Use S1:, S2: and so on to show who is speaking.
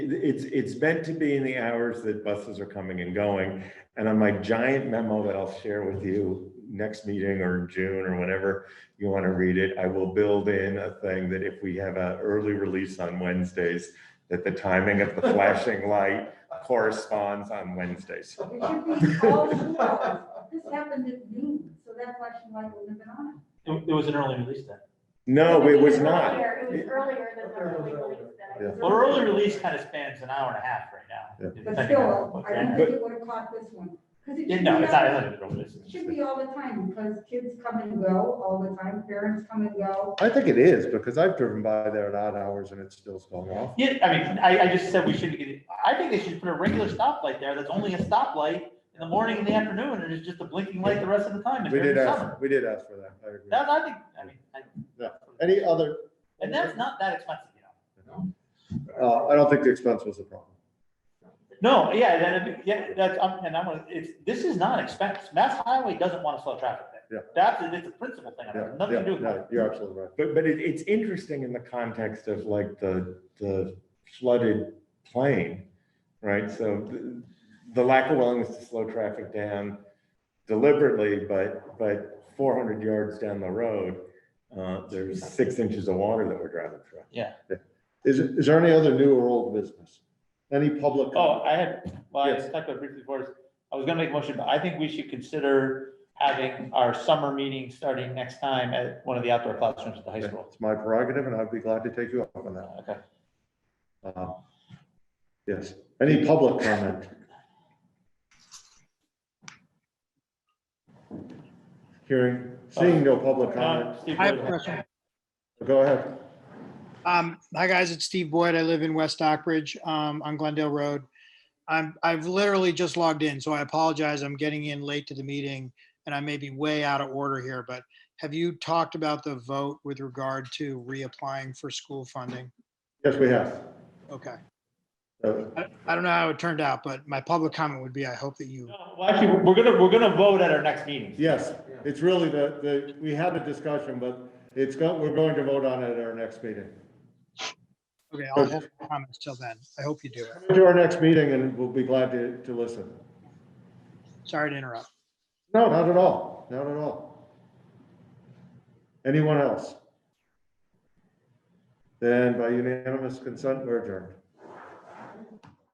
S1: it's, it's meant to be in the hours that buses are coming and going. And on my giant memo that I'll share with you next meeting or in June or whenever you want to read it, I will build in a thing that if we have an early release on Wednesdays, that the timing of the flashing light corresponds on Wednesdays.
S2: It should be all two hours. This happened at noon, so that flashing light would have been on.
S3: It it was an early release then.
S1: No, it was not.
S4: It was earlier than the early release that I
S1: Yeah.
S4: was.
S3: Well, early release kind of spans an hour and a half right now.
S2: But
S3: depending on
S2: still,
S3: what
S2: I
S3: you're
S2: don't
S3: at.
S2: think it would have caught this one. 'Cause it
S3: Yeah,
S2: should
S3: No,
S2: be
S3: it's not
S2: all-
S3: early release.
S2: it Should be all the time because kids come and go all the time, parents come and go.
S5: I think it is, because I've driven by there at odd hours and it's still going off.
S3: Yeah, I mean, I, I just said we shouldn't get, it. I think they should put a regular stoplight there that's only a stoplight in the morning and the afternoon, and it's just a blinking light the rest of the time. and
S5: We
S3: during
S5: did
S3: the summer.
S5: ask, we did ask for that, I agree.
S3: That, I think, I mean,
S5: Yeah.
S3: I,
S5: Any other,
S3: and that's not that expensive, you know?
S5: uh, I don't think the expense was a problem.
S3: No, yeah, then, it- yeah, that's, I'm- and I'm, gonna- it's, this is not expensive. Mass Highway doesn't want to slow traffic there. That's, it's a principle thing, it
S5: Yeah,
S3: has nothing to do
S5: yeah,
S3: with.
S5: no, You're absolutely right.
S1: But, but it, it's interesting in the context of like the, the flooded plain, right? So the, the lack of willingness to slow traffic down deliberately, but, but four hundred yards down the road, uh, there's six inches of water that we're driving through.
S5: Is, is there any other new or old business? Any public?
S3: Oh, I had, well, I
S5: Yes.
S3: talked about briefly before, this. I was gonna make a motion, but I think we should consider having our summer meeting starting next time at one of the outdoor classrooms at the high school.
S5: It's my prerogative and I'd be glad to take you up on that.
S3: Okay,
S5: Uh, Yes, any public comment? Hearing, seeing no public comment,
S3: Uh, Steve,
S6: I have
S3: go
S6: a
S3: ahead.
S6: question.
S5: go ahead.
S6: Um, hi guys, it's Steve Boyd. I live in West Dockbridge, um, on Glendale Road. I'm, I've literally just logged in, so I apologize. I'm getting in late to the meeting and I may be way out of order here, but have you talked about the vote with regard to reapplying for school funding?
S5: Yes, we have.
S6: Okay.
S5: Uh,
S6: I, I don't know how it turned out, but my public comment would be, I hope that you,
S3: No, Well, actually, we're gonna, we're gonna vote at our next meeting.
S5: Yes, it's really the, the, we had a discussion, but it's got, we're going to vote on it at our next meeting.
S6: okay, I'll hold my comments till then. I hope you do it.
S5: To our next meeting and we'll be glad to, to listen.
S6: Sorry to interrupt.
S5: No, not at all, not at all. Anyone else? Then by unanimous consent, we're adjourned.